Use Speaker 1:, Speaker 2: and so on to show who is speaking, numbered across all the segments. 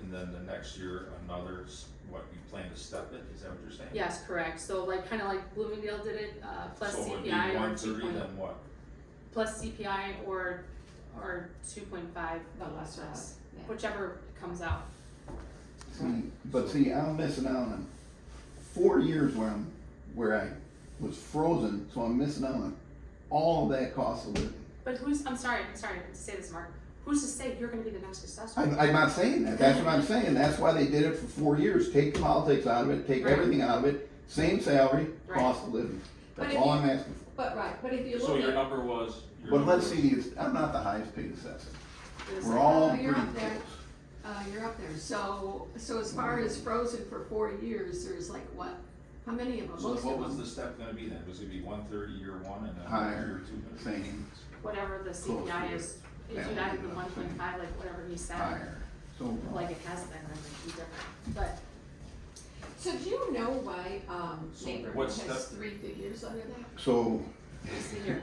Speaker 1: and then the next year another, s- what, you plan to step it, is that what you're saying?
Speaker 2: Yes, correct, so like, kinda like Bloomingdale did it, uh, plus
Speaker 1: So it would be
Speaker 2: CPI or
Speaker 1: one
Speaker 2: two
Speaker 1: thirty,
Speaker 2: point,
Speaker 1: then what?
Speaker 2: plus CPI or, or two point five,
Speaker 3: The
Speaker 2: less,
Speaker 3: less
Speaker 2: less,
Speaker 3: of, yeah.
Speaker 2: whichever comes out.
Speaker 4: See, but see, I'm missing out on four years where I'm, where I was frozen, so I'm missing out on all that cost of living.
Speaker 2: But who's, I'm sorry, I'm sorry to say this, Mark, who's to say you're gonna be the next assessor?
Speaker 4: I'm, I'm not saying that, that's what I'm saying, that's why they did it for four years, take the politics out of it, take
Speaker 2: Right.
Speaker 4: everything out of it, same salary,
Speaker 2: Right.
Speaker 4: cost of living.
Speaker 3: But
Speaker 4: That's
Speaker 3: if
Speaker 4: all
Speaker 3: you-
Speaker 4: I'm asking for.
Speaker 3: But right, but if you
Speaker 5: So
Speaker 3: look
Speaker 5: your
Speaker 3: at,
Speaker 5: number was? your
Speaker 4: But
Speaker 5: number
Speaker 4: let's
Speaker 5: was-
Speaker 4: see, it's, I'm not the highest paid assessor,
Speaker 2: Is-
Speaker 4: we're all
Speaker 3: Oh,
Speaker 4: pretty
Speaker 3: you're up there.
Speaker 4: close.
Speaker 3: uh, you're up there, so, so as far as frozen for four years, there's like what, how many of them,
Speaker 1: So
Speaker 3: most of
Speaker 1: what was
Speaker 3: them?
Speaker 1: the step gonna be then, was it gonna be one thirty year one and then
Speaker 4: Higher,
Speaker 1: year two?
Speaker 4: same.
Speaker 2: Whatever the
Speaker 4: Close
Speaker 2: CPI
Speaker 4: to
Speaker 2: is, if
Speaker 4: That
Speaker 2: you
Speaker 4: would
Speaker 2: add
Speaker 4: be
Speaker 2: the
Speaker 4: what
Speaker 2: one
Speaker 4: I'm
Speaker 2: point
Speaker 4: saying.
Speaker 2: five, like whatever he said,
Speaker 4: higher, so.
Speaker 2: like it has been, then it'd be different, but
Speaker 3: So do you know why, um,
Speaker 1: So
Speaker 3: neighborhood
Speaker 1: what's
Speaker 3: has
Speaker 1: the-
Speaker 3: three figures under that?
Speaker 4: So,
Speaker 2: it's the year.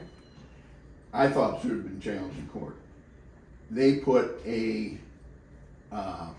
Speaker 4: I thought it should have been challenged in court. They put a uh,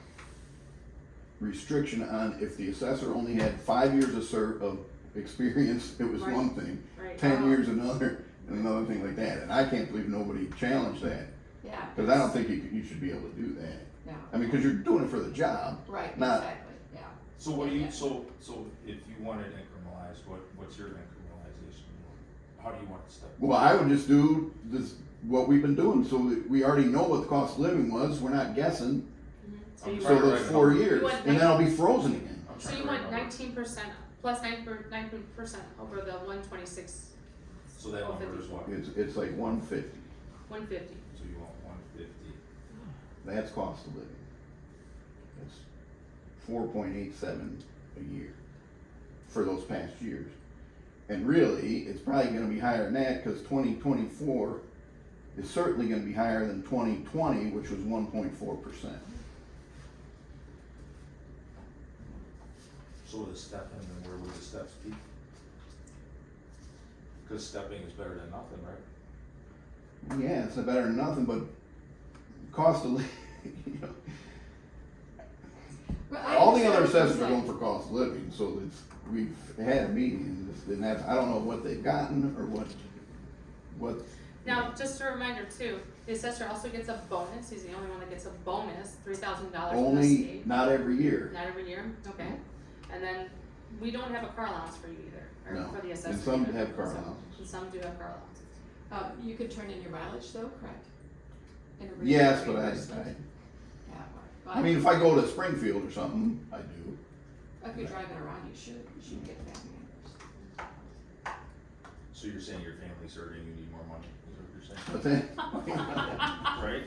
Speaker 4: restriction on if the assessor only had five years of ser- of experience, it was
Speaker 2: Right. Uh-huh.
Speaker 4: one thing,
Speaker 2: right? Um,
Speaker 4: ten
Speaker 3: Wow.
Speaker 4: years another, and another thing like that. And I can't believe nobody challenged that
Speaker 3: Yeah.
Speaker 4: because I don't think you, you should be able to do that.
Speaker 3: No,
Speaker 4: I mean, because you're doing it for the job.
Speaker 3: right,
Speaker 4: Not-
Speaker 3: exactly, yeah.
Speaker 1: So what do you, so, so if you wanted incrementalized, what, what's your incrementalization? How do you want to step?
Speaker 4: Well, I would just do this what we've been doing, so that we already know what the cost of living was. We're not guessing.
Speaker 2: Mhm. So
Speaker 1: I'm
Speaker 2: you
Speaker 4: So
Speaker 1: sorry.
Speaker 2: want,
Speaker 4: those four years,
Speaker 2: want
Speaker 4: and then I'll be frozen again.
Speaker 1: I'm
Speaker 2: so
Speaker 1: trying
Speaker 2: you
Speaker 1: to
Speaker 2: want
Speaker 1: remember.
Speaker 2: nineteen percent, plus nine per, nine percent over the one twenty-six,
Speaker 1: So that number is what,
Speaker 4: It's it's like one fifty.
Speaker 2: one fifty.
Speaker 1: so you want one fifty?
Speaker 4: That's cost of living. That's four point eight seven a year for those past years. And really, it's probably gonna be higher than that, cause twenty twenty-four is certainly gonna be higher than twenty twenty, which was one point four percent.
Speaker 1: So the step and then where would the steps be? Cause stepping is better than nothing, right?
Speaker 4: Yeah, it's better than nothing, but cost of, li- you know,
Speaker 3: Well, I
Speaker 4: All the other
Speaker 3: understand
Speaker 4: assessors are
Speaker 3: what you're
Speaker 4: going for cost of living, so it's, we've had a meeting, and it's- and that's, I don't know what they've gotten, or what, what.
Speaker 2: Now, just a reminder too, the assessor also gets a bonus, he's the only one that gets a bonus, three thousand
Speaker 3: Uh,
Speaker 2: dollars from the
Speaker 4: Only,
Speaker 2: state,
Speaker 4: not every year,
Speaker 2: not every year, okay? And then, we don't have a car allowance for you either,
Speaker 4: No.
Speaker 2: or for the
Speaker 4: And
Speaker 2: assessor.
Speaker 4: some
Speaker 2: either.
Speaker 4: have car
Speaker 2: So-
Speaker 4: allowances.
Speaker 2: And some do have car allowances.
Speaker 3: saying. Uh, you could turn in your mileage though, correct? And a
Speaker 4: yes, but I,
Speaker 3: reimbursement.
Speaker 4: I,
Speaker 3: Yeah, right. Well,
Speaker 4: I mean, if I go to Springfield or something, I do.
Speaker 3: If you're driving around, you should, you should get that reimbursed.
Speaker 1: So you're saying your family's hurting, you need more money, is that what you're saying?
Speaker 4: But then,
Speaker 1: Right?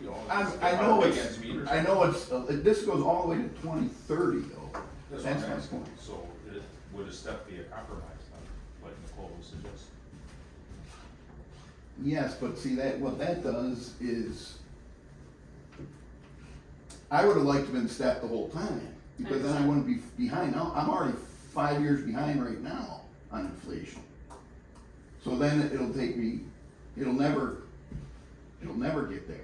Speaker 1: You know,
Speaker 4: I,
Speaker 1: it's-
Speaker 4: I know
Speaker 1: our
Speaker 4: it's,
Speaker 1: weekends meet or
Speaker 4: I know it's, uh, this goes all the way to twenty thirty though.
Speaker 1: That's
Speaker 4: That's
Speaker 1: what I'm
Speaker 4: my
Speaker 1: asking.
Speaker 4: point.
Speaker 1: So it- would a step be a compromise, like- like Nicole was suggesting?
Speaker 4: Yes, but see that, what that does is, I would have liked to been staffed the whole time, because then I wouldn't be behind, now, I'm already five years behind right now on inflation. So then it'll take me, it'll never, it'll never get there.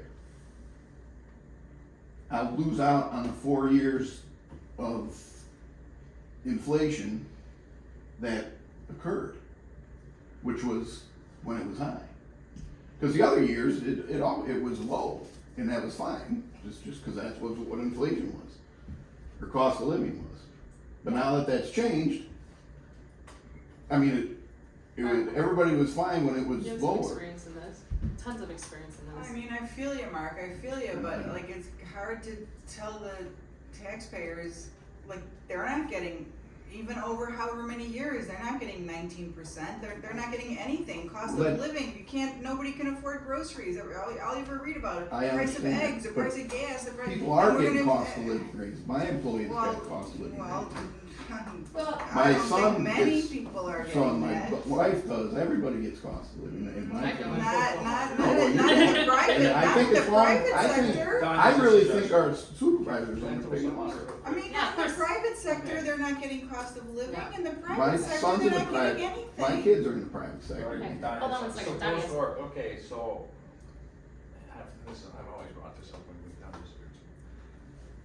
Speaker 4: I'll lose out on the four years of inflation that occurred, which was when it was high. Because the other years, it, it all, it was low, and that was fine, just, just because that's what, what inflation was, or cost of living was. But now that that's changed, I mean, it, it was, everybody was fine when it was
Speaker 2: You have some
Speaker 4: lower.
Speaker 2: experience in this, tons of experience in
Speaker 6: I
Speaker 2: this.
Speaker 6: mean, I feel you, Mark, I feel you, but like, it's hard to tell the taxpayers, like, they're not getting, even over however many years, they're not getting nineteen percent, they're, they're not getting anything, cost
Speaker 4: But-
Speaker 6: of living, you can't, nobody can afford groceries, all, all you ever read about,
Speaker 4: I
Speaker 6: the price
Speaker 4: understand
Speaker 6: of
Speaker 4: that,
Speaker 6: eggs, the
Speaker 4: but
Speaker 6: price of gas, the price.
Speaker 4: People are
Speaker 6: and we're
Speaker 4: getting
Speaker 6: gonna-
Speaker 4: cost of living raises, my employees
Speaker 6: Well,
Speaker 4: got cost of living
Speaker 6: Well,
Speaker 4: raises.
Speaker 3: Well,
Speaker 6: I
Speaker 4: My
Speaker 6: don't think
Speaker 4: son
Speaker 6: many
Speaker 4: gets-
Speaker 6: people are
Speaker 4: So and
Speaker 6: getting
Speaker 4: my
Speaker 6: that,
Speaker 4: bu- wife does, everybody gets cost of living, in my
Speaker 2: I
Speaker 4: family.
Speaker 2: don't.
Speaker 6: not, not,
Speaker 4: No, well,
Speaker 6: not, not
Speaker 4: you-
Speaker 6: in the private,
Speaker 4: And I
Speaker 6: not
Speaker 4: think
Speaker 6: in the
Speaker 4: it's wrong. I
Speaker 6: private
Speaker 4: think-
Speaker 6: sector.
Speaker 4: I really think our supervisors underpaid us.
Speaker 6: I
Speaker 2: Yeah,
Speaker 6: mean, in the
Speaker 2: of course.
Speaker 6: private sector, they're not getting cost of living,
Speaker 3: Yeah.
Speaker 6: in the
Speaker 4: My
Speaker 6: private sector,
Speaker 4: son's
Speaker 6: they're
Speaker 4: in the
Speaker 6: not getting anything.
Speaker 4: My kids are in the private sector.
Speaker 2: Okay,
Speaker 1: Right,
Speaker 2: hold on one
Speaker 1: Diana's-
Speaker 2: second,
Speaker 5: So
Speaker 2: Diana's-
Speaker 5: those are, okay, so, I've, this, I've always brought this up when